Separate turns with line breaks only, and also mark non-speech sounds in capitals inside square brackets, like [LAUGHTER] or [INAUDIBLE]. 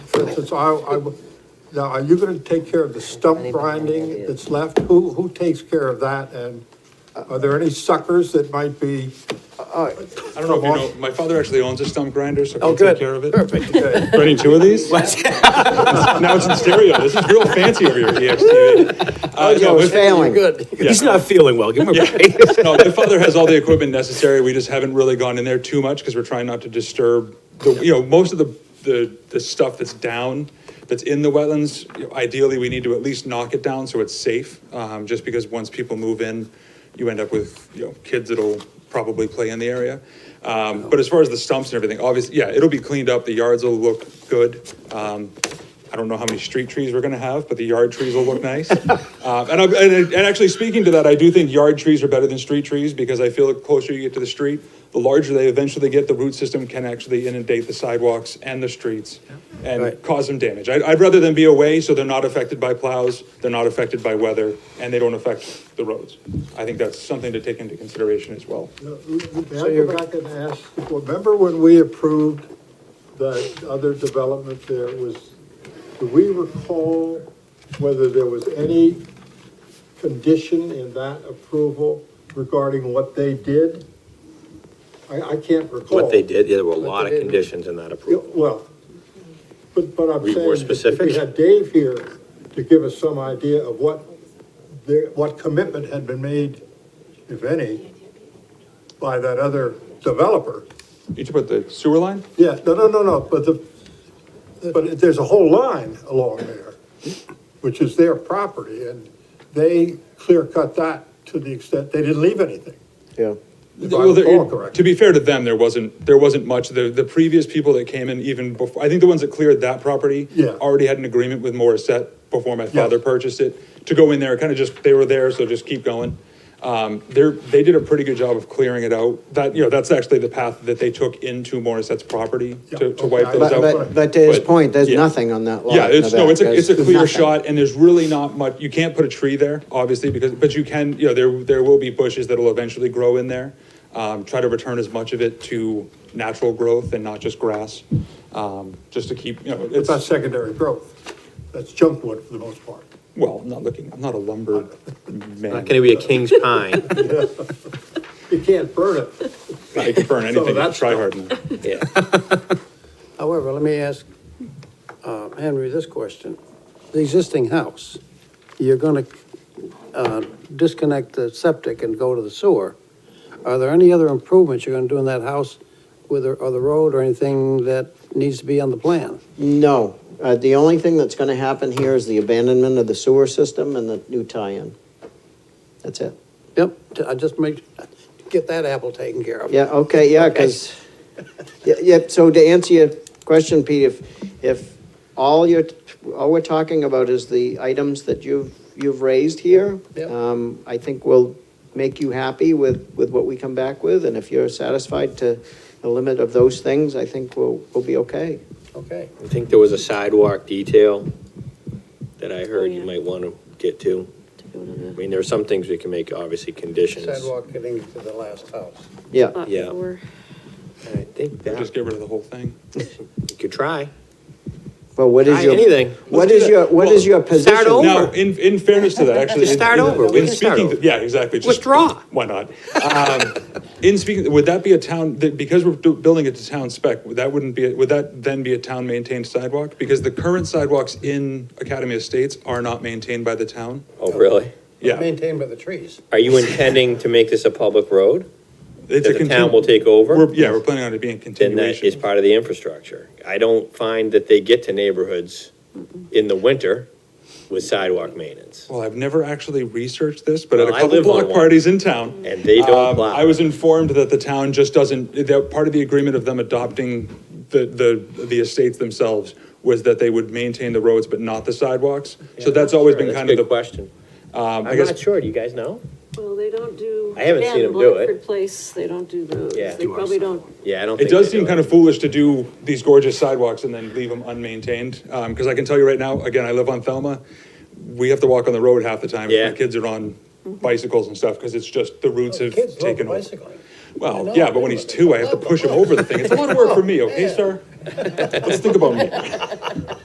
this, it's, I, I, now, are you gonna take care of the stump
Anybody have any
grinding
ideas?
that's left? Who, who takes care of that, and are there any suckers that might be?
I don't know if you know, my father actually owns a stump grinder, so
Oh,
he'll take
good.
care of it.
Perfect.
[LAUGHS]
Okay,
Running two of these? Now it's in stereo. This is real fancy over here at E
[LAUGHS]
EXTV. Uh, no,
it's
my-
failing.
Good. He's not feeling well. Give him a break.
No, my father has all the equipment necessary. We just haven't really gone in there too much because we're trying not to disturb the, you know, most of the, the, the stuff that's down, that's in the wetlands. you know, Ideally, we need to at least knock it down so it's safe, um, just because once people move in, you end up with, you know, kids that'll probably play in the area. Um, but as far as the stumps and everything, obviously, yeah, it'll be cleaned up. The yards will look good. Um, I don't know how many street trees we're gonna have, but the yard trees will look nice. Uh, and, I, and, and actually, speaking to that, I do think yard trees are better than street trees because I feel the closer you get to the street, the larger they eventually get, the root system can actually inundate the sidewalks and the streets and
Right.
cause them damage. I, I'd rather them be away so they're not affected by plows, they're not affected by weather, and they don't affect the roads. I think that's something to take into consideration as well.
May I go back and ask, remember when we approved that other development there was, do we recall whether there was any condition in that approval regarding what they did? I, I can't recall.
What they did, yeah, there were a lot of conditions in that
Yeah,
approval.
Well, but, but I'm
Be
saying.
more
that If
specific?
we had Dave here to give us some idea of what, their- what commitment had been made, if any, by that other developer.
You talk about the sewer line?
Yeah, no, no, no, no, but the, but there's a whole line along there, which is their property, and they clear cut that to the extent, they didn't leave anything.
Yeah.
If I
Well, there-
recall correctly.
To be fair to them, there wasn't, there wasn't much. The, the previous people that came in even before, I think the ones that cleared that property
Yeah.
already had an agreement with Morissette before my father
Yeah.
purchased it, to go in there, kind of just, they were there, so just keep going. Um, they're, they did a pretty good job of clearing it out. That, you know, that's actually the path that they took into Morissette's property to, to
Yeah,
wipe
okay, I-
those
But,
out.
but, but to his
But,
point, there's
yeah.
nothing on that lot.
Yeah, it's, no,
Nevada.
it's a, it's a
There's
clear
nothing.
shot and there's really not much, you can't put a tree there, obviously, because, but you can, you know, there, there will be bushes that'll eventually grow in there. Um, try to return as much of it to natural growth and not just grass, um, just to keep, you know,
It's not
it's,
secondary growth, that's junk wood for the most part.
well, I'm not looking, I'm not a lumber man.
Not gonna be a king's pine,
You can't burn it.
I can burn anything,
that's-
try hard enough.
yeah.
However, let me ask uh, Henry this question. The existing house, you're going to disconnect the septic and go to the sewer. Are there any other improvements you're going to do in that house with, the- or the road or anything that needs to be on the plan?
No, uh, the only thing that's gonna happen here is the abandonment of the sewer system and the new tie-in. That's it.
Yep, t- I just make, get that apple taken care of.
Yeah, okay, yeah, because, yeah, yeah, so to answer your question, Pete, if, if all you're, all we're talking about is the items that you've, you've raised here,
Yep.
um, I think will make you happy with, with what we come back with, and if you're satisfied to the limit of those things, I think we'll, we'll be okay.
Okay.
I think there was a sidewalk detail that I heard you
yeah.
might wanna get Oh, to. I mean, there are some things we can make, obviously, conditions.
Sidewalk getting to the last house.
Yeah,
Yeah.
Or-
I think
Just
that,
get rid of the whole thing.
you could try.
but what is
Try
your?
anything.
Oh,
What
Let's
is
do
your,
that.
what is
Well,
your position?
over.
Now, in, in fairness to that, actually.
Just
in-
start
in-
over. We
in
can start
speaking-
over.
Yeah, exactly. Just-
Withdraw.
Why not? Um, In speaking, would that be a town, that- because we're do- building it to town spec, would that wouldn't be, would that then be a town-maintained sidewalk? Because the current sidewalks in Academy Estates are not maintained by the town.
Oh, really?
Yeah.
Maintained by the trees.
Are you intending to make this a public road?
It's a
That the town
continu-
will take over?
We're- Yeah, we're planning on it being
Then that is
continuation.
part of the infrastructure. I don't find that they get to neighborhoods in the winter with sidewalk maintenance.
Well, I've never actually researched this, but at a
Well, I
couple
live on
block
one.
parties in town.
And they don't
um,
plow.
I was informed that the town just doesn't, that part of the agreement of them adopting the, the, the estates themselves was that they would maintain the roads but not the sidewalks. So that's always been
That's a
kind of
good
the,
question.
um, I
I'm
guess.
not sure, do you guys know?
Well, they don't do.
I haven't seen
again,
'em do it.
Blanford Place, they don't do those.
Yeah.
They probably don't.
Yeah, I don't
It
think.
does
they
seem
do
kind of foolish to do these gorgeous sidewalks and then leave them unmaintained, um, because I can tell you right now, again, I live on Thelma, we have to walk on the road half the time. if
Yeah.
My kids are on bicycles and stuff, because it's just, the roots have
Mm-hmm. Oh, Kids love
taken over.
bicycling. I
Well,
know.
yeah, but when he's two, I have to push him over the thing, it's a lot of work for me, okay, sir? Let's think about me.